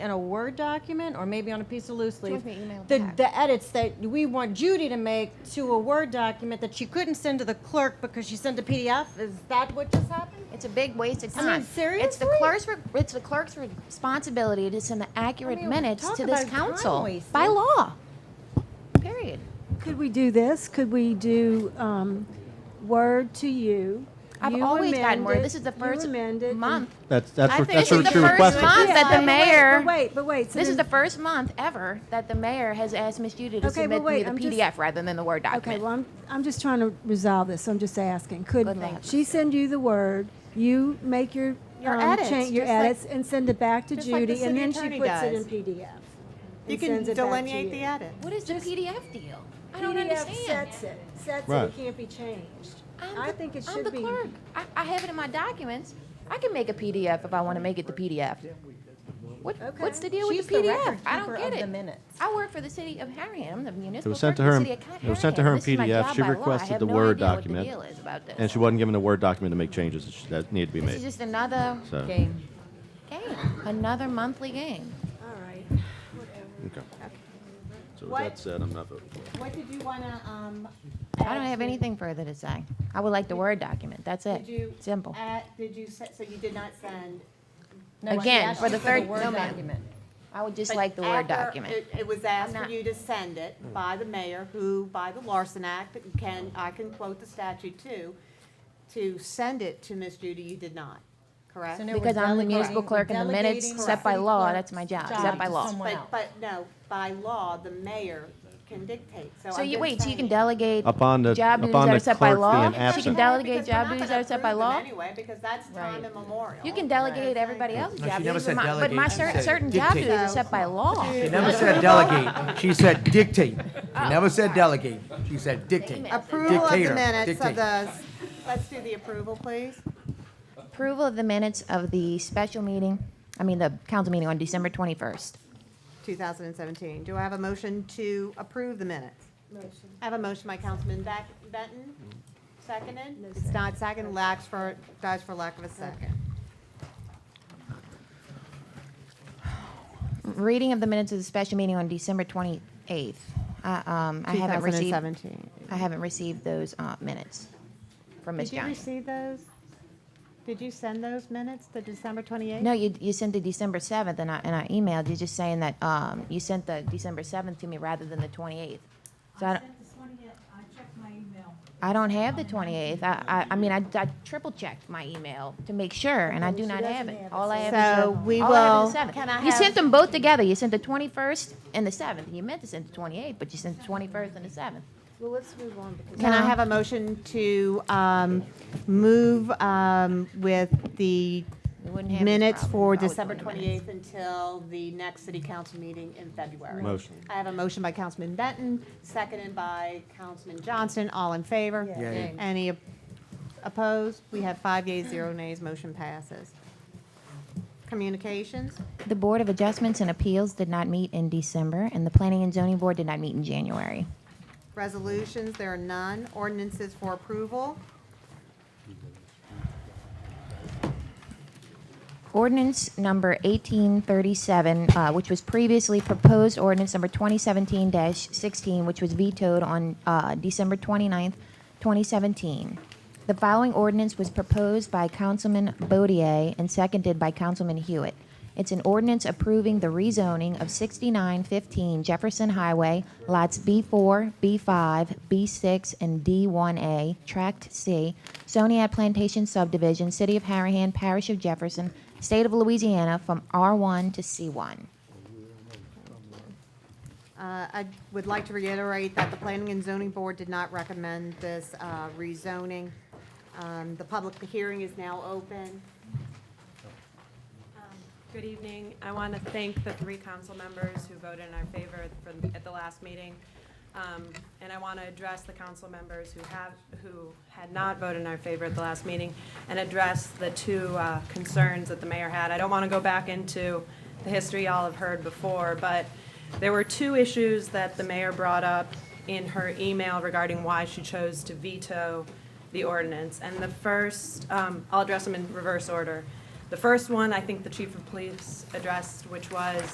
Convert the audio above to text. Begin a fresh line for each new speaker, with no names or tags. in a Word document or maybe on a piece of loose leaf.
want me to email
The,
back?
the edits that we want Judy to make to a Word document that she couldn't send to the clerk because she sent a PDF, is that what just happened?
It's a big waste of
I mean,
time. It's the
seriously?
clerk's re- it's the clerk's re- responsibility to send the accurate
I mean,
minutes
talk
to this
about time
council
wasted.
by law. Period.
Could we do this? Could we do um, word to you?
I've
You
always gotten word.
amended-
This is the
you
first
amended, and-
month.
That's, that's
I
what,
think
that's
this
what
is
you're
the first
requesting.
month that the
Yeah, but wait,
mayor.
But wait, but wait. so
This is the
then-
first month ever that the mayor has asked Miss Judy to
Okay, well,
submit me
wait,
the
I'm just-
PDF rather than the Word
Okay,
document.
well, I'm, I'm just trying to resolve this, so I'm just asking. Could
Good luck.
she send you the word, you make your,
Your
um,
edits,
change- your
just like-
edits, and send it back to
just like the
Judy, and
city
then she
attorney
puts it in
does.
PDF.
You
and
can
sends it back to
delineate the
you.
edit.
what is the PDF deal? I don't
PDF
understand.
sets it, sets it,
Right.
it can't be changed.
I'm
I
the-
think it
I'm the
should be.
clerk. I, I have it in my documents. I can make a PDF if I want to make it the PDF. What,
Okay.
What's the deal with
She's
the
the
PDF?
record
I don't
keeper
get
of
it.
the minutes.
I work for the city of Harahan, the municipal. clerk
sent to
of
her in-
the city of
it was sent to
Harahan.
her in
This is my
PDF.
job
She
by law. I
requested
have
the
no
Word
idea what the
document,
deal is about this.
And she wasn't given a Word document to make changes that sh- that needed to be
This is
made.
just another
So,
Okay.
game, another monthly game.
All right.
okay. So with
What-
that said, I'm not voting for it.
What did you wanna, um?
I don't have anything further to say. I would like the Word document. That's it. Simple.
Did you, so you did not send?
Again, for the third-
Word
no, ma'am.
document.
I would just like the Word
After-
document.
it- It was asked
I'm
for
not-
you to send it
Hmm.
by the mayor, who, by the Larson Act, that you can, I can quote the statute too, to send it to Miss Judy, you did not, correct?
So now we're
Because I'm the municipal
delegating-
clerk and the minutes
delegating
set by
city
law,
clerk's
that's my job,
job
set by
to
law.
someone else.
But, but no, by law, the mayor can dictate, so.
So
I'm
you,
just
wait, so you can
saying-
delegate
Upon the-
job duties
upon
that
the
are set by
clerk
law?
being
She
Doesn't
can
absent.
matter,
delegate
because we're
job
not
duties that
gonna
are set by
approve them
law?
Anyway, because that's time
Right.
immemorial.
You can delegate everybody else's
No, she
job.
never
duties, but
said
my- But my
delegate, she
certain,
said
certain job
dictate.
duties are set by law.
She never said delegate. She said dictate. She never said delegate. She said dictate.
Approval of the
Dictator.
minutes of
Dictate.
the, let's do the approval, please.
Approval of the minutes of the special meeting, I mean, the council meeting on December 21st.
2017. Do I have a motion to approve the minutes? I have a motion by Councilman Beck- Benton, seconded. It's not seconded, lacks for, dies for lack of a second.
Reading of the minutes of the special meeting on December 28th. I um, I haven't received,
2017.
I haven't received those uh, minutes from Ms.
Did you
Johnson.
receive those? Did you send those minutes, the December 28th?
No, you, you sent the December 7th, and I, and I emailed you just saying that um, you sent the December 7th to me rather than the 28th. So I
I
don't-
sent this one yet, I checked my email.
I don't have the 28th. I, I, I mean, I, I triple checked my email to make sure, and I do not have it. All I have is
So
the,
we
all I have is
will-
the 7th.
can I
you
have-
sent them both together. You sent the 21st and the 7th. You meant to send the 28th, but you sent the 21st and the 7th.
Well, let's move on. because-
Can I have a motion to um, move um, with the
We wouldn't have
minutes for December
December
28th until the next city council meeting in February?
Motion.
I have a motion by Councilman Benton, seconded by Councilman Johnson. All in favor?
Yay.
Any op- opposed? We have five yeas, zero nays. Motion passes. Communications?
The Board of Adjustments and Appeals did not meet in December, and the Planning and Zoning Board did not meet in January.
Resolutions, there are none. Ordinances for approval.
Ordinance number 1837, uh, which was previously proposed ordinance number 2017-16, which was vetoed on uh, December 29th, 2017. The following ordinance was proposed by Councilman Bodier and seconded by Councilman Hewitt. It's an ordinance approving the rezoning of 6915 Jefferson Highway, lots B4, B5, B6, and D1A, Tract C, Soniat Plantation Subdivision, City of Harahan, Parish of Jefferson, State of Louisiana, from R1 to C1.
Uh, I would like to reiterate that the Planning and Zoning Board did not recommend this uh, rezoning. Um, The public hearing is now open.
Good evening. I want to thank the three council members who voted in our favor for- at the last meeting. Um, And I want to address the council members who have, who had not voted in our favor at the last meeting and address the two uh, concerns that the mayor had. I don't want to go back into the history y'all have heard before, but there were two issues that the mayor brought up in her email regarding why she chose to veto the ordinance. And the first, um, I'll address them in reverse order. The first one, I think the chief of police addressed, which was